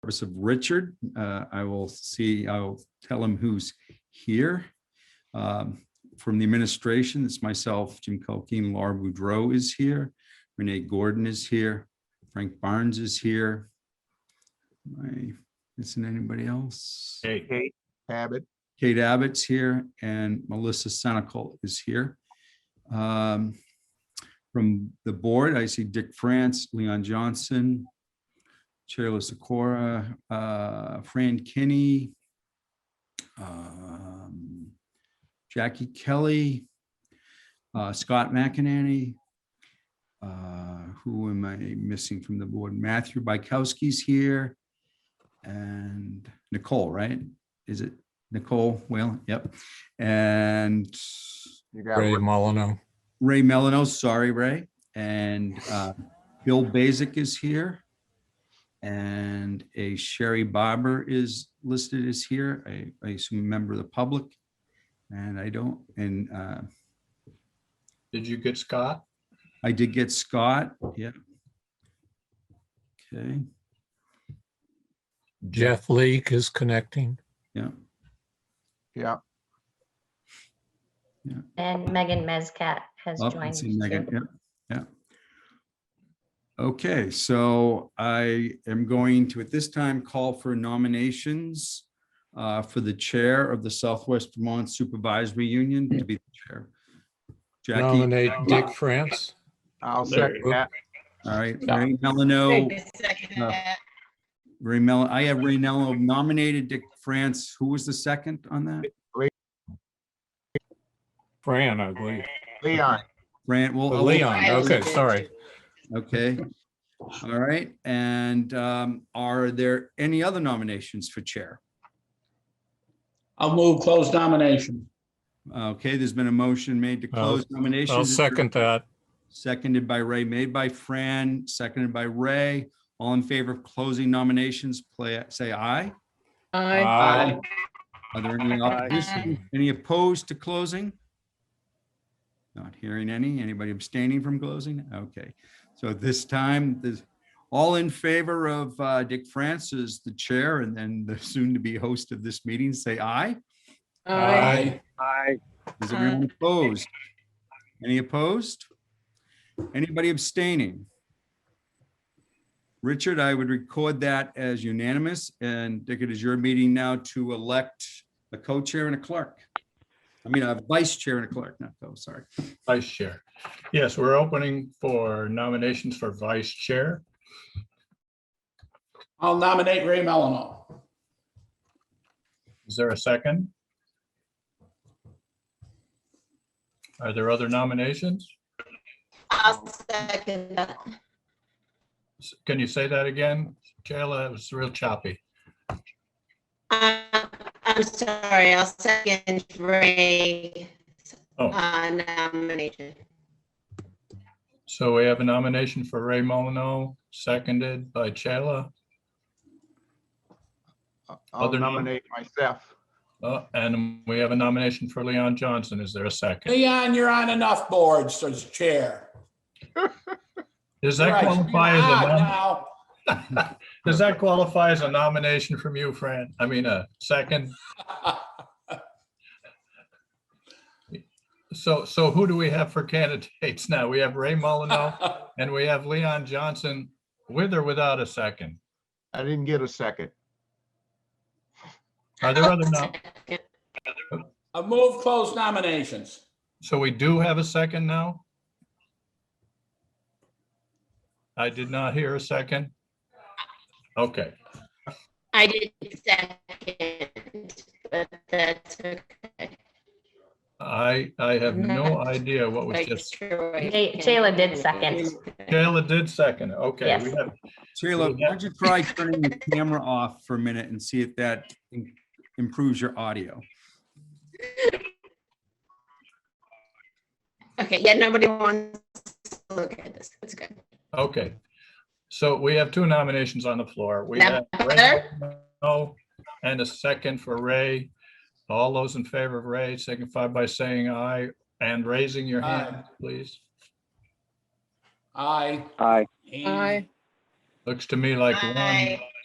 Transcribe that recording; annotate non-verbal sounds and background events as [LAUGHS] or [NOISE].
purpose of Richard. Uh, I will see, I'll tell him who's here. Um, From the administration, it's myself, Jim Culkeen, Laura Boudreau is here, Renee Gordon is here, Frank Barnes is here. My, isn't anybody else? Hey, Kate Abbott, Kate Abbott's here and Melissa Senical is here. Um, From the board, I see Dick France, Leon Johnson, Chairless Sikora, uh, Fran Kinney, um, Jackie Kelly, uh, Scott McInerney. uh, Who am I missing from the board? Matthew Bykowski's here. And Nicole, right? Is it Nicole Whalen, yep. And you got Ray one. Molyneux. Ray Melino, sorry, Ray. And uh, Bill Basic is here. And a Sherry Barber is listed as here, I- I assume a member of the public. And I don't, and uh, did you get Scott? I did get Scott, yeah. Okay, Jeff Leake is connecting. yeah, yeah, And Megan Mezcat has Oh, I joined. see Megan, too. yep, yeah. Okay, so I am going to, at this time, call for nominations uh, for the Chair of the Southwest Vermont Supervisory Union to be the Chair. Jackie, Nominate Dick France. I'll There second you go. that. all right, Ray Melino, Second uh, that. Ray Mel, I have Ray Melino nominated Dick France. Who was the second on that? Fran, I believe. Leon, Grant, well. Oh, I'll- Leon, okay, sorry. Okay, all right, and um, are there any other nominations for Chair? I'll move close nomination. Okay, there's been a motion made to I'll- close nominations. I'll Is there- second that. Seconded by Ray, made by Fran, seconded by Ray. All in favor of closing nominations, play, say aye. Aye. Aye. Are there any opposition? Any opposed to closing? Not hearing any. Anybody abstaining from closing? Okay. So at this time, this, all in favor of uh, Dick Francis, the chair, and then the soon-to-be host of this meeting, say aye. Aye. I, Is everyone opposed? Any opposed? Anybody abstaining? Richard, I would record that as unanimous, and Dick, it is your meeting now to elect a co-chair and a clerk. I mean, a vice chair and a clerk, not co, sorry. Vice Chair. Yes, we're opening for nominations for Vice Chair. I'll nominate Ray Melino. Is there a second? Are there other nominations? I'll second that. S- Can you say that again? Jayla, it was real choppy. Uh, I'm sorry, I'll second Ray's Oh. uh, nomination. So we have a nomination for Ray Molyneux, seconded by Jayla, I'll Other nom- nominate myself. Uh, and we have a nomination for Leon Johnson. Is there a second? Leon, you're on enough boards as chair. Does that Right, qualify as a? you're out nom- now. [LAUGHS] Does that qualify as a nomination from you, Fran? I mean, a second? So, so who do we have for [LAUGHS] candidates now? We have Ray [LAUGHS] Molyneux and we have Leon Johnson with or without a second. I didn't get a second. Are Oh, there other, nom- A move close nominations. so we do have a second now? I did not hear a second. Okay, [LAUGHS] I did second, but that's okay. I, I have no idea what was Like, just, sure, I Jay- can- Jayla did second. Jayla did second. Okay, we Yes. have, Sheila, why don't you try turning the camera off for a minute and see if that im- improves your audio? Okay, yeah, nobody wants to look at this. That's good. Okay, so we have two nominations on the floor. We have That [LAUGHS] Ray better? Moreno and a second for Ray. All those in favor of Ray signify by saying aye and raising your hand, please. Aye. Aye. Aye. Looks to me like one Aye.